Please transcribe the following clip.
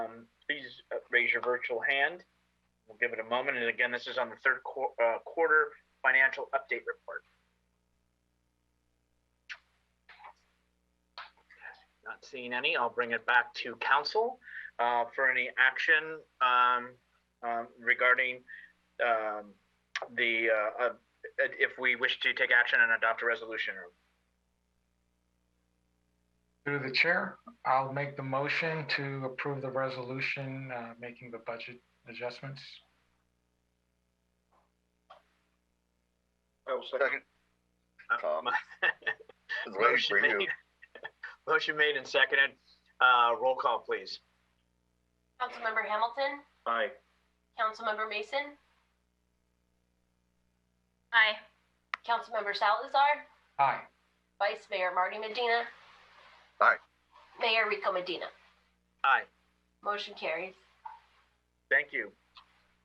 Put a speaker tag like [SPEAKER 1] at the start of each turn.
[SPEAKER 1] Um, uh, raise your virtual hand. We'll give it a moment. And again, this is on the third quar- uh, quarter financial update report. Not seeing any. I'll bring it back to council uh, for any action um, um, regarding um, the, uh, uh, if we wish to take action and adopt a resolution.
[SPEAKER 2] Through the chair, I'll make the motion to approve the resolution, uh, making the budget adjustments.
[SPEAKER 3] I will second.
[SPEAKER 1] Uh,
[SPEAKER 3] Tom.
[SPEAKER 1] my-
[SPEAKER 3] It's waiting
[SPEAKER 1] Motion
[SPEAKER 3] for you.
[SPEAKER 1] made. Motion made and seconded. Uh, Roll call, please.
[SPEAKER 4] Councilmember Hamilton,
[SPEAKER 3] Aye.
[SPEAKER 4] Councilmember Mason. Aye. Councilmember Salazar,
[SPEAKER 2] Aye.
[SPEAKER 4] Vice Mayor Marty Medina.
[SPEAKER 3] Aye.
[SPEAKER 4] Mayor Rico Medina.
[SPEAKER 1] Aye.
[SPEAKER 4] Motion carries.
[SPEAKER 1] Thank you.